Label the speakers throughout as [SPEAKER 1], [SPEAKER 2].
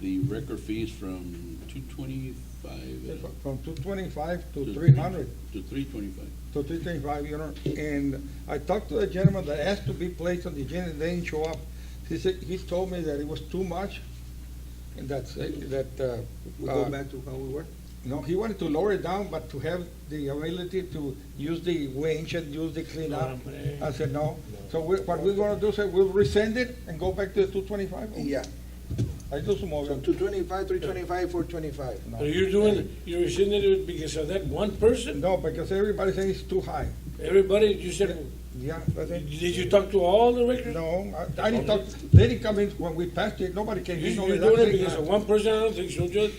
[SPEAKER 1] the record fees from two twenty-five
[SPEAKER 2] From two twenty-five to
[SPEAKER 1] To-
[SPEAKER 2] three hundred,
[SPEAKER 1] to three twenty-five.
[SPEAKER 2] to three twenty-five, you know, and I talked to the gentleman that asked to be placed on the agenda, and they didn't show up. He said, he told me that it was too much, and that's, it, that, uh.
[SPEAKER 3] We go
[SPEAKER 2] uh,
[SPEAKER 3] back to how we were?
[SPEAKER 2] No, he wanted to lower it down, but to have the ability to use the winch and use the cleanup. I said, no. So we- what we're gonna do, sir, we'll rescind it and go back to the two twenty-five?
[SPEAKER 3] Yeah,
[SPEAKER 2] I do some more.
[SPEAKER 3] so two twenty-five, three twenty-five, four twenty-five.
[SPEAKER 2] No.
[SPEAKER 4] So you're doing, you're rescinding it because of that one person?
[SPEAKER 2] No, because everybody saying it's too high.
[SPEAKER 4] Everybody, you said,
[SPEAKER 2] Yeah, that's
[SPEAKER 4] did
[SPEAKER 2] it.
[SPEAKER 4] you talk to all the records?
[SPEAKER 2] No, I- I didn't talk, they didn't come in when we passed it, nobody came
[SPEAKER 4] You-
[SPEAKER 2] in.
[SPEAKER 4] You're
[SPEAKER 2] only
[SPEAKER 4] doing it
[SPEAKER 2] that
[SPEAKER 4] because
[SPEAKER 2] thing. uh,
[SPEAKER 4] of one person? I don't think so, Judge.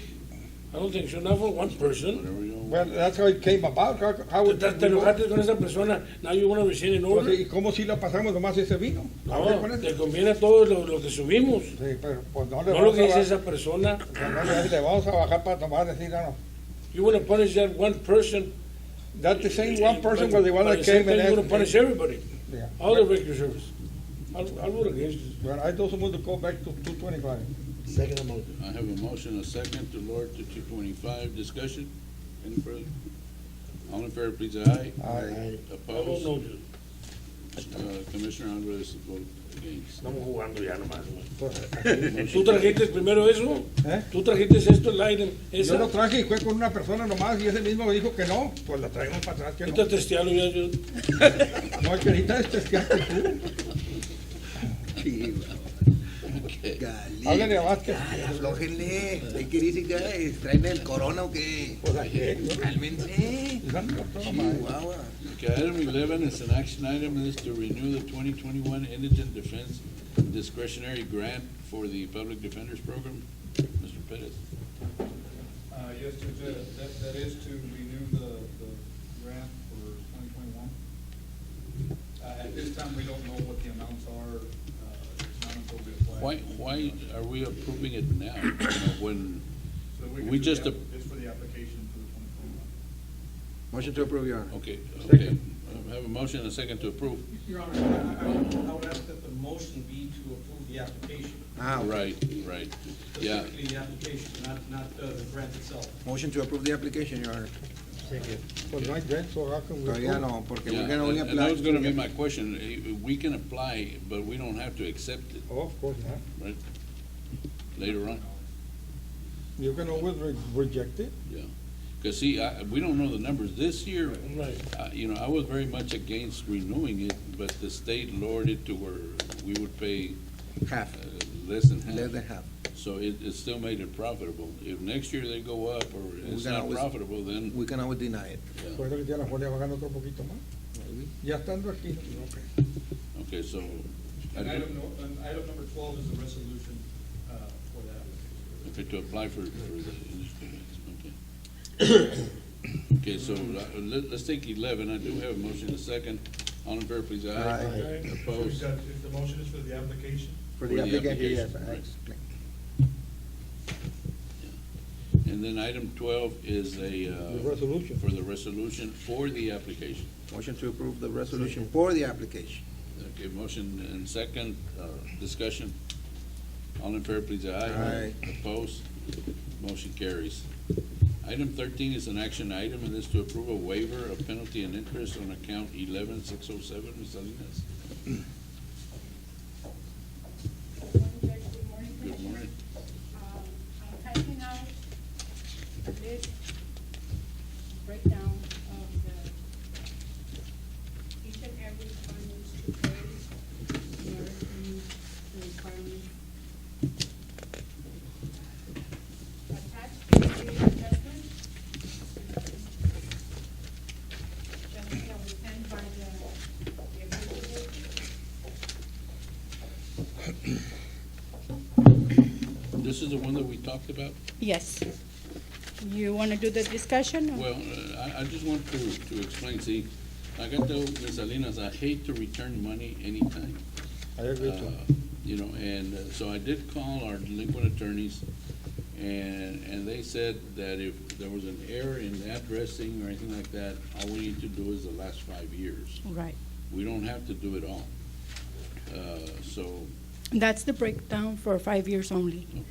[SPEAKER 4] I don't think so, not for one person.
[SPEAKER 1] Whatever you want.
[SPEAKER 2] Well, that's how it came about, how, how.
[SPEAKER 4] Te
[SPEAKER 2] it-
[SPEAKER 4] te enojaste con esa persona, now you want to rescind an
[SPEAKER 2] Pues,
[SPEAKER 4] order?
[SPEAKER 2] ¿Y cómo si la pasamos nomás ese vino? A ver,
[SPEAKER 4] No,
[SPEAKER 2] con
[SPEAKER 4] te
[SPEAKER 2] eso.
[SPEAKER 4] conviene a todos lo, lo que subimos,
[SPEAKER 2] Sí, pero pues no le
[SPEAKER 4] no lo
[SPEAKER 2] vamos
[SPEAKER 4] que
[SPEAKER 2] a
[SPEAKER 4] dice
[SPEAKER 2] bajar,
[SPEAKER 4] esa persona.
[SPEAKER 2] no le- le vamos a bajar para tomar, decir, ah, no, no.
[SPEAKER 4] You want to punish that one person.
[SPEAKER 2] That's the same one person
[SPEAKER 4] but-
[SPEAKER 2] was the one
[SPEAKER 4] but
[SPEAKER 2] that
[SPEAKER 4] the same
[SPEAKER 2] came and
[SPEAKER 4] time You want to
[SPEAKER 2] asked.
[SPEAKER 4] punish everybody,
[SPEAKER 2] me- Yeah.
[SPEAKER 4] all the record service. I'll, I'll vote against it.
[SPEAKER 2] Well, I don't want to go back to two twenty-five.
[SPEAKER 3] Second motion.
[SPEAKER 1] I have a motion, a second, to lower to two twenty-five. Discussion? Any further? All in favor, please, aye.
[SPEAKER 2] Aye.
[SPEAKER 4] I don't
[SPEAKER 1] Opposed?
[SPEAKER 4] know, Oh, Judge.
[SPEAKER 1] Uh, Commissioner Alvarez vote against.
[SPEAKER 4] Estamos jugando ya nomás. güey. ¿Tú
[SPEAKER 2] ¿Eh?
[SPEAKER 4] trajiste primero eso? ¿Tú trajiste esto, el item? esa?
[SPEAKER 2] Yo lo traje y fue con una persona nomás y ese mismo me dijo que no, pues la traemos para atrás, que no.
[SPEAKER 4] Ahorita testealo ya, yo.
[SPEAKER 2] No, es que ahorita este es que haces tú.
[SPEAKER 1] Okay.
[SPEAKER 2] Háblale a
[SPEAKER 3] Galí.
[SPEAKER 2] Vázquez.
[SPEAKER 3] Aflójenle. Hay que irse ya, eh, ¿traen el corona o qué?
[SPEAKER 2] Pues aquí, ¿no?
[SPEAKER 3] Cálmense.
[SPEAKER 2] Y son todos mal.
[SPEAKER 3] Chihuahua.
[SPEAKER 1] Okay, item eleven is an action item, is to renew the twenty twenty-one indigent defense discretionary grant for the public defenders program. Mr. Pettis.
[SPEAKER 5] Uh, yes, Judge, Ed, that, that is to renew the, the grant for twenty twenty-one. Uh, at this time, we don't know what the amounts are, uh, it's not until we apply.
[SPEAKER 1] Why, why are we approving it now, when
[SPEAKER 5] So we can
[SPEAKER 1] we
[SPEAKER 5] do
[SPEAKER 1] just
[SPEAKER 5] the
[SPEAKER 1] ap-
[SPEAKER 5] app- It's for the application for the twenty twenty-one.
[SPEAKER 3] Motion to approve, Your Honor.
[SPEAKER 1] Okay, okay. I Have a motion and a second to approve.
[SPEAKER 6] Your Honor, I- I, I would, I would ask that the motion be to approve the application,
[SPEAKER 3] Ah, okay.
[SPEAKER 1] Right, right. Yeah,
[SPEAKER 6] specifically the application, not, not uh, the grant itself.
[SPEAKER 3] Motion to approve the application, Your Honor.
[SPEAKER 2] Pues no hay grant, so how can we
[SPEAKER 3] Todavía
[SPEAKER 2] approve?
[SPEAKER 3] no, porque
[SPEAKER 1] yeah.
[SPEAKER 3] we're gonna only
[SPEAKER 1] And
[SPEAKER 3] apply.
[SPEAKER 1] and that was gonna be my question. Eh, We can apply, but we don't have to accept it,
[SPEAKER 2] Oh, of course not.
[SPEAKER 1] right? Later on,
[SPEAKER 2] You can always re- reject it.
[SPEAKER 1] yeah. Cause see, I, we don't know the numbers. This year,
[SPEAKER 4] Right.
[SPEAKER 1] uh, you know, I was very much against renewing it, but the state lowered it to where we would pay
[SPEAKER 3] Half,
[SPEAKER 1] uh, less than half.
[SPEAKER 3] less than half.
[SPEAKER 1] So it, it still made it profitable. If next year they go up or it's
[SPEAKER 3] can
[SPEAKER 1] not
[SPEAKER 3] always-
[SPEAKER 1] profitable, then,
[SPEAKER 3] We can always deny it.
[SPEAKER 2] Puede que ya la Julia va a ganar otro poquito más. Ya estando aquí. ok.
[SPEAKER 1] okay, so. I
[SPEAKER 5] And
[SPEAKER 1] don't-
[SPEAKER 5] item no, and item number twelve is the resolution, uh, for that application.
[SPEAKER 1] Okay, to apply for, for the industry grants, okay. Okay, so uh, let, let's take eleven, I do have a motion, a second, all in favor, please, aye.
[SPEAKER 4] Aye.
[SPEAKER 1] Opposed?
[SPEAKER 5] if the motion is for the application?
[SPEAKER 3] For the application, yes, I
[SPEAKER 1] right.
[SPEAKER 3] explain.
[SPEAKER 1] And then item twelve is a,
[SPEAKER 2] The
[SPEAKER 1] uh,
[SPEAKER 2] resolution.
[SPEAKER 1] for the resolution for the application.
[SPEAKER 3] Motion to approve the resolution for the application.
[SPEAKER 1] Okay, motion and second, uh, discussion, all in favor, please, aye. Aye. Opposed? Motion carries. Item thirteen is an action item, and is to approve a waiver of penalty and interest on account eleven six oh seven, Ms. Salinas.
[SPEAKER 7] Good morning, Judge. Good morning,
[SPEAKER 1] Good morning.
[SPEAKER 7] Um, I'm typing out the list breakdown of the, each and every requirement to pay, in order to meet the requirement. Attached is the adjustment. Adjustment that was sent by the, the executive.
[SPEAKER 1] This is the one that we talked about?
[SPEAKER 8] Yes. You want to do the discussion? or-
[SPEAKER 1] Well, uh, I, I just want to, to explain, see, like I told Ms. Salinas, I hate to return money anytime.
[SPEAKER 2] I agree to.
[SPEAKER 1] Uh, You know, and uh, so I did call our delinquent attorneys, and, and they said that if there was an error in addressing or anything like that, all we need to do is the last five years.
[SPEAKER 8] Right.
[SPEAKER 1] We don't have to do it all. Uh, So,
[SPEAKER 8] That's the breakdown for five years only.